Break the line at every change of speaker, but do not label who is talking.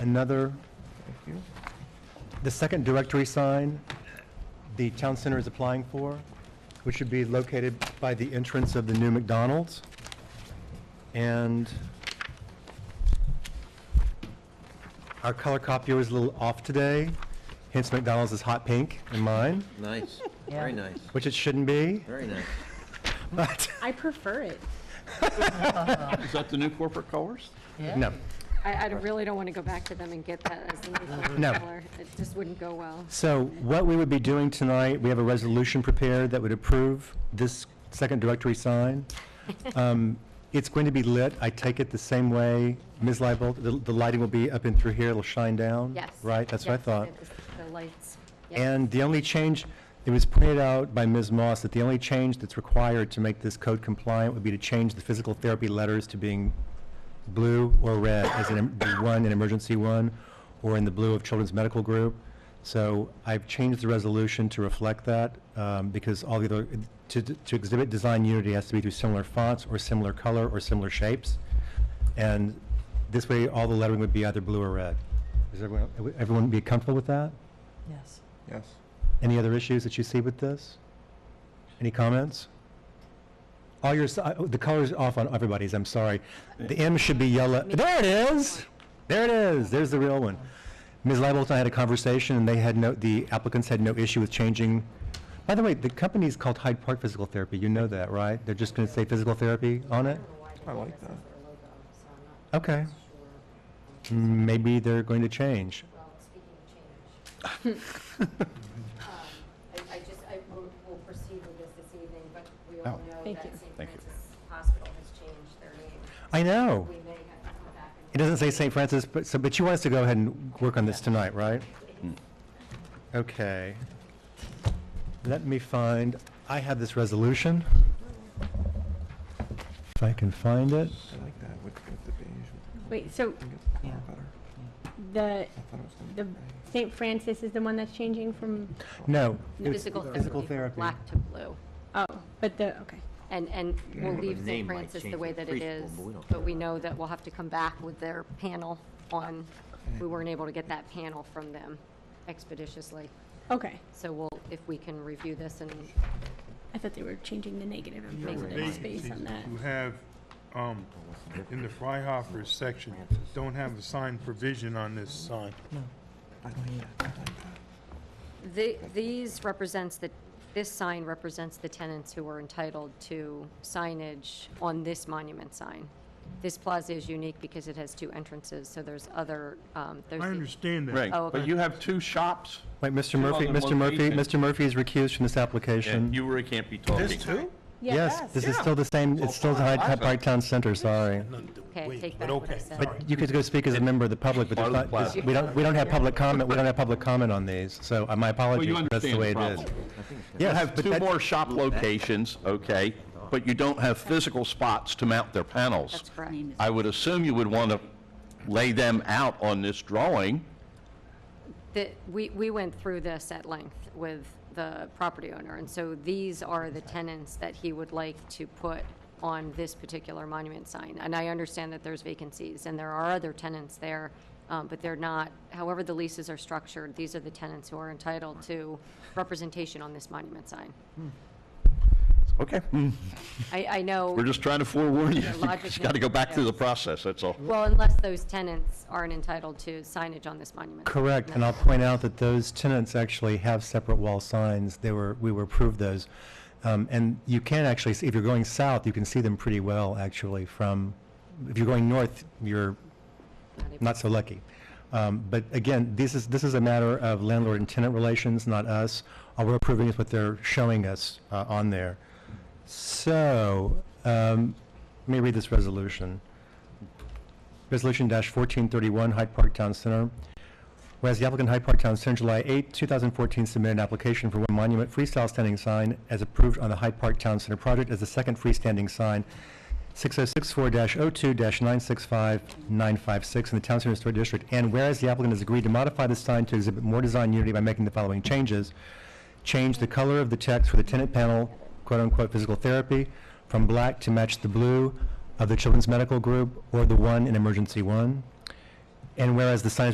Another,
Thank you.
the second directory sign the town center is applying for, which should be located by the entrance of the new McDonald's. And our color copier was a little off today, hence McDonald's is hot pink in mine,
Nice, very
Yeah.
nice,
which it shouldn't be,
very nice.
but,
I prefer it.
Is that the new corporate colors?
no.
I, I really don't want to go back to them and get that as the new
Mm-hmm. No.
color. It just wouldn't go well.
So what we would be doing tonight, we have a resolution prepared that would approve this second directory sign. Um, It's going to be lit, I take it the same way, Ms. Leibert, the the lighting will be up and through here, it'll shine down?
Yes.
Right, that's what I
yes,
thought.
it was The lights. Yes.
And the only change, it was pointed out by Ms. Moss that the only change that's required to make this code compliant would be to change the physical therapy letters to being blue or red, as in em- the one in emergency one, or in the blue of Children's Medical Group. So I've changed the resolution to reflect that, um, because all the other, to, to exhibit design unity has to be through similar fonts, or similar color, or similar shapes. And this way, all the lettering would be either blue or red. Is everyone, everyone be comfortable with that?
Yes.
Yes.
Any other issues that you see with this? Any comments? All your, si- oh, the color's off on everybody's, I'm sorry. The M should be yellow. There it is! There it is, there's the real one. Ms. Leibert and I had a conversation, and they had no, the applicants had no issue with changing. By the way, the company's called Hyde Park Physical Therapy, you know that, right? They're just gonna say physical therapy on it?
I like that.
Okay.
Um,
Maybe they're going to change.
Well, speaking of change, um, I I just, I will will proceed with this this evening, but we all know
Thank
that
you.
St.
Thank you.
Francis Hospital has changed their name.
I know.
We may have to come back
It
and.
Oh. doesn't say St. Francis, but, so, but you want us to go ahead and work on this tonight, right? Okay. Let me find, I have this resolution. If I can find it.
I like that with, with the beige. with the-
Wait, so
I think it's kinda better.
Oh, the,
I thought it was gonna be
the
beige.
St. Francis is the one that's changing from,
No. it was
Physical therapy.
Physical
from
therapy.
Black to blue.
oh, but the, okay.
And, and we'll
the
leave St.
name might
Francis the
change
way
in
that it
preschool,
is,
but we don't
but we know that we'll have to come back with their panel on, we weren't able to get that panel from them expeditiously.
Okay,
So we'll, if we can review this and
I thought they were changing the negative and positive space on that.
who have, um, in the Fryhoffers section,
Oh,
don't have a sign provision on this sign.
I like that, I like that.
The- These represents the, this sign represents the tenants who are entitled to signage on this monument sign. This plaza is unique because it has two entrances, so there's other, um, there's.
I
the-
understand that.
Oh,
Right,
okay.
but you have two shops,
Wait, Mr.
Two
Murphy,
other
Mr. Murphy,
locations.
Mr. Murphy is recused from this
and
application.
you really can't be talking.
Yes, this is still the same, it's still the Hyde Park Town Center, sorry.
Okay, take back what I said.
But you could go speak as a member of the public, but there's
Part of
not,
the
this- we don't, we don't have public comment, we don't have public comment on these, so uh, my apologies,
you
but that's the
understand the
way it is.
problem. You
Yes,
have
but
two
that-
more shop locations, okay, but you don't have physical spots to mount their panels.
That's correct.
I would assume you would want to lay them out on this drawing.
The- we, we went through this at length with the property owner, and so these are the tenants that he would like to put on this particular monument sign. And I understand that there's vacancies, and there are other tenants there, um, but they're not, however the leases are structured, these are the tenants who are entitled to representation on this monument sign.
Okay.
I, I know.
We're just trying to forewarn you.
Yeah,
You
logic
just got to go back through the process, that's all.
Well, unless those tenants aren't entitled to signage on this monument.
Correct, and I'll point out that those tenants actually have separate wall signs, they were, we were approved those. Um, and you can actually, see if you're going south, you can see them pretty well, actually, from, if you're going north, you're not so lucky. Um, But again, this is, this is a matter of landlord and tenant relations, not us. All we're approving is what they're showing us uh, on there. So, um, let me read this resolution. Resolution dash fourteen thirty-one, Hyde Park Town Center. Whereas the applicant Hyde Park Town Center, July 8, 2014, submitted an application for one monument freestyle standing sign as approved on the Hyde Park Town Center project as the second freestanding sign, 6064-02-965956 in the Town Center Historic District. And whereas the applicant has agreed to modify the sign to exhibit more design unity by making the following changes. Change the color of the text for the tenant panel, quote-unquote, physical therapy, from black to match the blue of the Children's Medical Group or the one in Emergency One. And whereas the sign is